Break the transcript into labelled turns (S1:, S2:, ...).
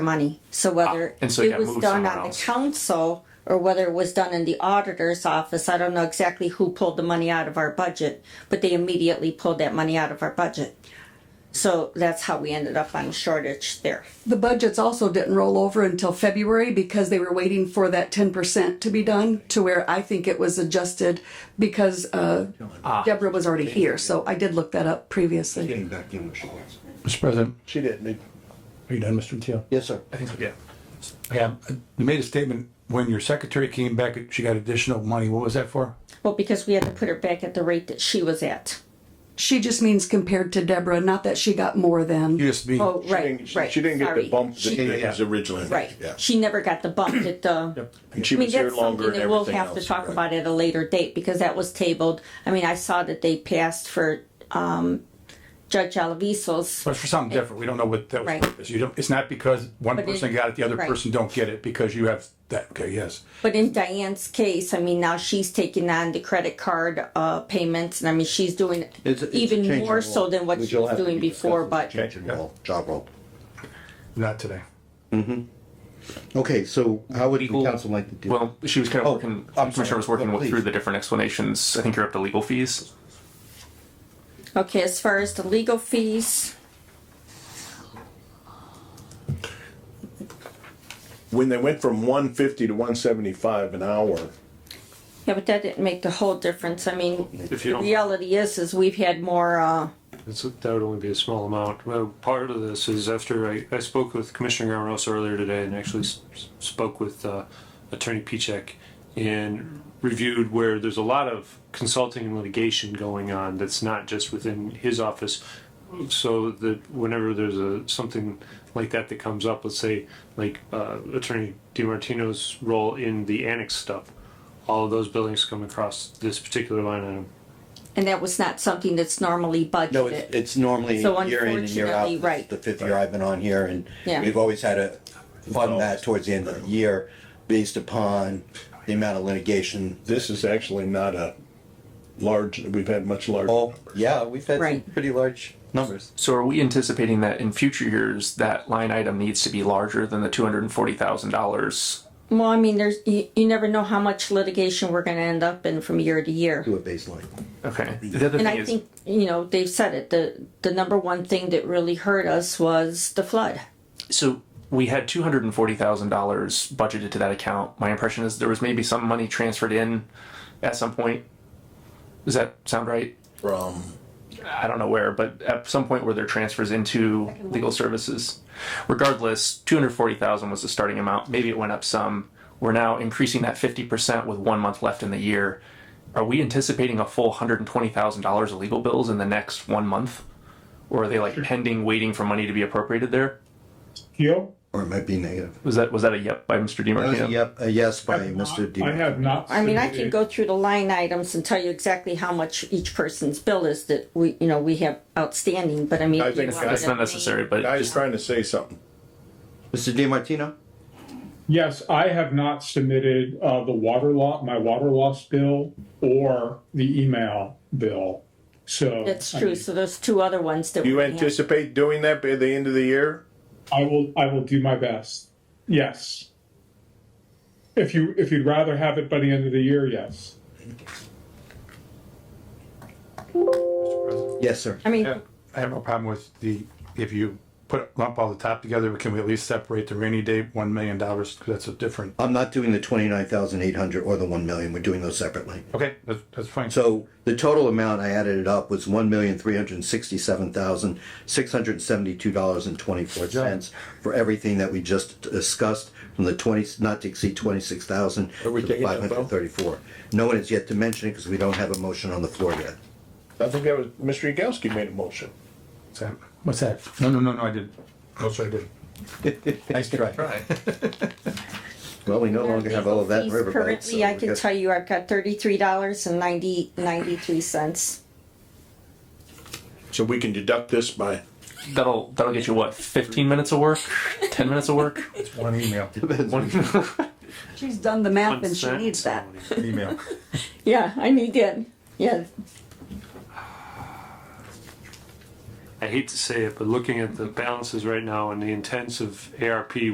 S1: money. So whether
S2: Ah, and so you
S1: it
S2: gotta
S1: was
S2: move
S1: done
S2: somewhere
S1: on the
S2: else.
S1: council or whether it was done in the auditor's office, I don't know exactly who pulled the money out of our budget, but they immediately pulled that money out of our budget. So that's how we ended up on shortage there.
S3: The budgets also didn't roll over until February because they were waiting for that ten percent to be done to where I think it was adjusted because uh, Deborah was already here, so I did look that up previously.
S4: Getting back in where she was.
S5: Mr. President,
S4: She didn't.
S5: are you done, Mr. Teal?
S4: Yes, sir.
S2: I think so, yeah.
S5: Yeah. You made a statement, when your secretary came back, she got additional money. What was that for?
S1: Well, because we had to put her back at the rate that she was at.
S3: She just means compared to Deborah, not that she got more
S5: You
S3: than.
S5: just mean,
S1: Oh, right,
S6: She-
S1: right.
S6: She didn't get
S1: sorry.
S6: the bump
S1: She-
S6: that it was originally.
S1: Right.
S6: Yeah.
S1: She never got the bump that the.
S6: And she
S1: I mean,
S6: was here
S1: that's
S6: longer
S1: something
S6: and
S1: that we'll
S6: everything
S1: have to
S6: else.
S1: talk
S6: right.
S1: about at a later date because that was tabled. I mean, I saw that they passed for, um, Judge Alvisos.
S5: but for something different, we don't know what that was.
S1: Right.
S5: purpose. You don't, it's not because one
S1: But it-
S5: person got it, the other
S1: right.
S5: person don't get it, because you have that, okay, yes.
S1: But in Diane's case, I mean, now she's taking on the credit card, uh, payments and I mean, she's doing
S4: It's a- it's a change
S1: even
S4: in
S1: more
S4: law,
S1: so than what
S4: which
S1: she
S4: you'll
S1: was
S4: have to
S1: doing
S4: be
S1: before, but
S4: discussed. Change in law, job role.
S5: Not today.
S4: Okay, so how would the council like to do? it?
S2: Well, she was kind of
S4: Oh,
S2: working,
S4: I'm
S2: Commissioner
S4: sorry.
S2: was working
S4: Look,
S2: with-
S4: please.
S2: through the different explanations. I think you're up to legal fees.
S1: okay, as far as the legal fees,
S6: When they went from one fifty to one seventy-five an hour,
S1: yeah, but that didn't make the whole difference. I mean,
S7: If you
S1: the
S7: don't,
S1: reality is, is we've had more, uh,
S7: it's- that would only be a small amount. Well, part of this is after I, I spoke with Commissioner Garmosa earlier today and actually s- spoke with uh, Attorney Pichek and reviewed where there's a lot of consulting and litigation going on that's not just within his office. So that whenever there's a, something like that that comes up, let's say like uh, Attorney DiMartino's role in the annex stuff, all of those buildings come across this particular line item.
S1: and that was not something that's normally budgeted.
S4: No, it's, it's normally
S1: So
S4: year in and year
S1: unfortunately,
S4: out.
S1: right.
S4: The fifth year I've been on here and
S1: Yeah.
S4: we've always had to fund that towards the end of the year based upon the amount of litigation.
S6: this is actually not a large, we've had much larger.
S4: Oh, yeah, we've had some
S1: Right.
S4: pretty large numbers.
S2: So are we anticipating that in future years, that line item needs to be larger than the two hundred and forty thousand dollars?
S1: Well, I mean, there's you, you never know how much litigation we're going to end up in from year to year.
S4: Do a baseline.
S2: Okay. The other
S1: And
S2: thing
S1: I
S2: is,
S1: think you know they've said it. the The number one thing that really hurt us was the flood.
S2: so we had two hundred and forty thousand dollars budgeted to that account. My impression is there was maybe some money transferred in at some point. Does that sound right?
S6: From.
S2: I don't know where, but at some point were there transfers into legal services? Regardless, two hundred forty thousand was the starting amount. Maybe it went up some. We're now increasing that fifty percent with one month left in the year. Are we anticipating a full hundred and twenty thousand dollars of legal bills in the next one month? Or are they like pending, waiting for money to be appropriated there?
S8: Keel?
S4: Or it might be negative. Uh,
S2: Was that was that a yep by Mr. DiMartino?
S4: Yep, a yes by Mr. D.
S8: I have not.
S1: I mean, I can
S2: Mm-hmm.
S8: submitted-
S1: go through the line items and tell you exactly how much each person's bill is that we you know we have outstanding. But I mean,
S6: I
S1: if you
S6: think
S1: want
S6: that's
S2: That's
S1: to
S2: not
S1: name-
S2: necessary, but
S6: I was
S2: just
S6: trying to say something.
S4: Mr. Di Martino?
S8: Yes, I have not submitted uh, the water law, my water loss bill or the email bill. So.
S1: That's
S8: I
S1: true.
S8: mean,
S1: So there's two other ones that
S6: Do you
S1: we have.
S6: anticipate doing that by the end of the year?
S8: I will, I will do my best. Yes. If you, if you'd rather have it by the end of the year, yes.
S4: Yes, sir.
S1: I mean,
S5: I have no problem with the, if you put, lump all the top together, but can we at least separate the rainy day, one million dollars, because that's a different,
S4: I'm not doing the twenty-nine thousand eight hundred or the one million, we're doing those separately.
S5: okay, that's, that's fine.
S4: So the total amount, I added it up, was one million three hundred and sixty-seven thousand six hundred and seventy-two dollars and twenty-four cents for everything that we just discussed from the twenty, not to exceed twenty-six thousand to five hundred and thirty-four. No one has yet to mention it because we don't have a motion on the floor yet.
S6: I think that was, Mr. Yagowski made a motion.
S5: What's that? What's that? No, no, no, no, I didn't. No, sir, I didn't. Nice try.
S4: Well, we no longer have all of that in
S1: Fees
S4: Riverbank.
S1: Currently, I can tell you I've got thirty-three dollars and ninety, ninety-three cents.
S6: So we can deduct this by,
S2: that'll that'll get you what, fifteen minutes of work? Ten minutes of work?
S5: It's one email,
S3: She's done the math and she
S7: Consent
S3: needs that.
S7: only.
S5: email.
S1: Yeah, I need that. Yeah,
S7: I hate to say it, but looking at the balances right now and the intents of ARP